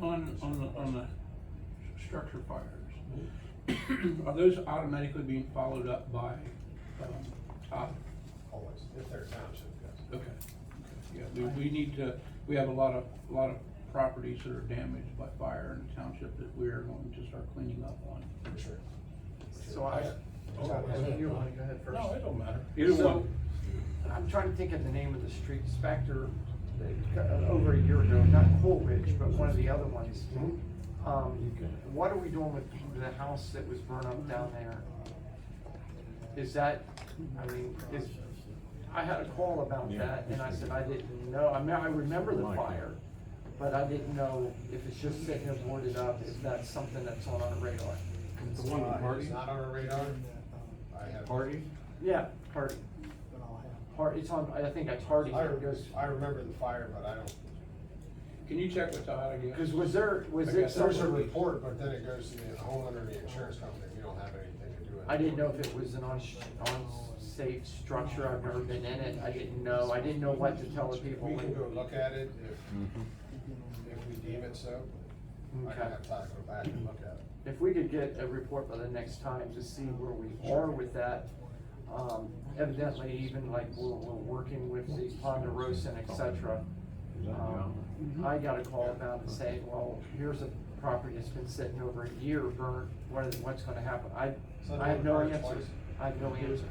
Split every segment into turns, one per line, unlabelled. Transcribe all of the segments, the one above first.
on, on the, on the s- structure fires, are those automatically being followed up by, um, Todd?
Always, if there's township, yes.
Okay, yeah, we, we need to, we have a lot of, a lot of properties that are damaged by fire in the township that we are going to start cleaning up on.
For sure.
So I.
Oh, go ahead.
You wanna go ahead first?
No, it don't matter. Either
So,
one.
I'm trying to think of the name of the street, Specter, uh, over a year ago, not Coolidge, but one of the other ones. Um, what are we doing with the house that was burned up down there? Is that, I mean, is, I had a call about that, and I said I didn't know, I mean, I remember the fire, but I didn't know if it's just sitting there boarded up, if that's something that's on our radar.
The one
Uh,
with
It's
Hardy?
not on our radar. I have.
Hardy?
Yeah, Hardy, Hardy, it's on, I think it's Hardy,
I,
it goes.
I remember the fire, but I don't,
Can you check with Todd again?
Cause was there, was
I
there
guess there
there's a
was
some,
report, but then it goes to the homeowner, and the insurance company, we don't have anything to do with it.
I didn't know if it was an on, unsafe structure, I've never been in it, I didn't know, I didn't know what to tell the people.
We can
when-
go look at it if, if we deem it so. I can
Mm-hmm. Okay.
have Todd go back and look at it.
If we could get a report by the next time to see where we are with that. Um, evidently even like we're, we're working with the Ponderosa and et cetera. Um,
Mm-hmm.
I got a call about it saying, well, here's a property that's been sitting over a year burnt, what is, what's gonna happen? I,
So
I have no
they were
answer,
twice.
I have no answer.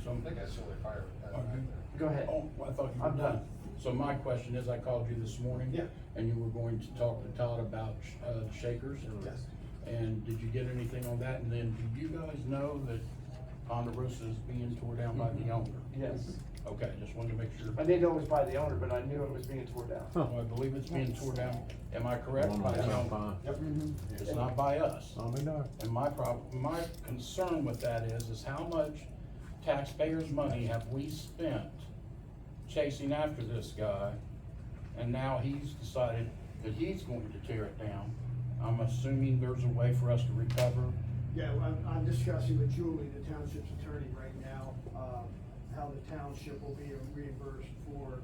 I
Some,
think that's the only fire we've had
Okay.
back there.
Go ahead.
oh, I thought you were
I'm
done.
done.
So my question is, I called you this morning.
Yeah.
And you were going to talk to Todd about, uh, shakers?
Yes.
And did you get anything on that? And then, do you guys know that Ponderosa is being tore down by
Mm-hmm.
the owner?
Yes.
Okay, just wanted to make sure.
I didn't know it was by the owner, but I knew it was being tore down.
Well, I believe it's being tore down, am I
The
correct?
one
By
on
the
South
owner?
Pine?
Yep.
It's not by us.
I mean, no.
And my problem, my concern with that is, is how much taxpayers' money have we spent chasing after this guy? And now he's decided that he's going to tear it down. I'm assuming there's a way for us to recover.
Yeah, well, I'm, I'm discussing with Julie, the township's attorney right now, uh, how the township will be reimbursed for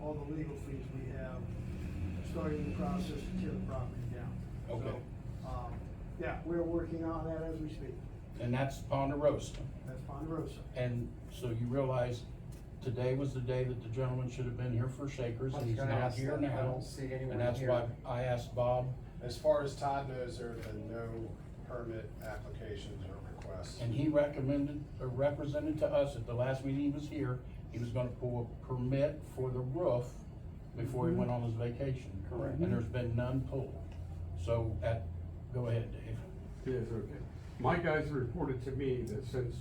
all the legal fees we have, starting the process to tear the property down.
Okay.
So, Um, yeah, we're working on that as we speak,
And that's Ponderosa.
that's Ponderosa.
And so you realize today was the day that the gentleman should have been here for Shakers
I was
and he's
gonna
not
ask
here
that. I
now.
don't see anyone
And that's
here.
why I asked Bob
As far as Todd knows, there have been no permit applications or requests.
And he recommended, or represented to us at the last meeting he was here, he was gonna pull a permit for the roof before he went on his vacation.
Correct.
And there's been none pulled. So at, go ahead, Dave.
Yes, okay. My guys reported to me that since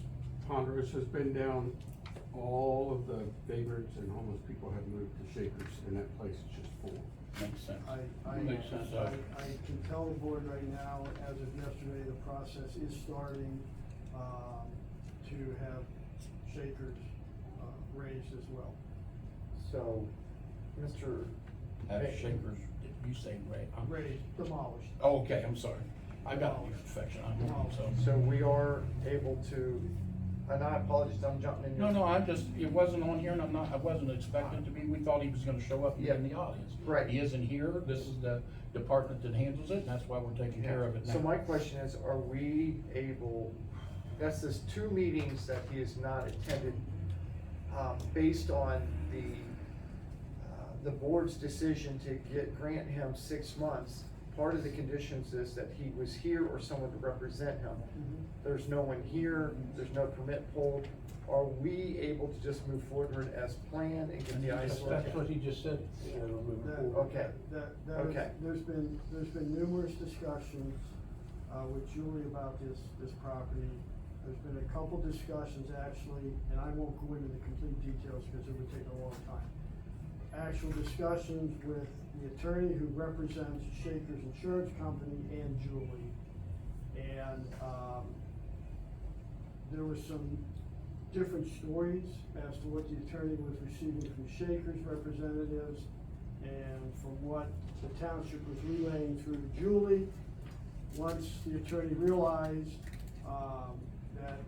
Ponderosa's been down, all of the vagrants and homeless people have moved to Shakers, and that place is just full.
Makes sense.
I, I,
Makes sense, uh,
I- I can tell the board right now, as of yesterday, the process is starting, um, to have shakers, uh, raised as well.
So, Mr.
Have Shakers, did you say Ray? I'm-
Raised, demolished.
Oh, okay, I'm sorry. I got your infection, I'm wrong, so.
So we are able to, and I apologize, I'm jumping in.
No, no, I just, it wasn't on here and I'm not, I wasn't expecting to be, we thought he was gonna show up and be in the audience.
Right.
He isn't here, this is the department that handles it, and that's why we're taking care of it now.
So my question is, are we able, that's this two meetings that he has not attended, um, based on the, uh, the board's decision to get, grant him six months. Part of the conditions is that he was here or someone to represent him. There's no one here, there's no permit pulled. Are we able to just move forward as planned and get the ice?
That's that's what he just said, you know, moving
That-
forward.
Okay.
That,
Okay.
that, there's been, there's been numerous discussions, uh, with Julie about this, this property. There's been a couple discussions actually, and I won't go into the complete details because it would take a long time. Actual discussions with the attorney who represents Shaker's Insurance Company and Julie. And, um, there was some different stories as to what the attorney was receiving from Shaker's representatives and from what the township was relaying through to Julie. Once the attorney realized, um, that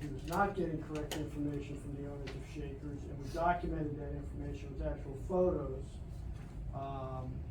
he was not getting correct information from the owners of Shakers, and we documented that information with actual photos, um,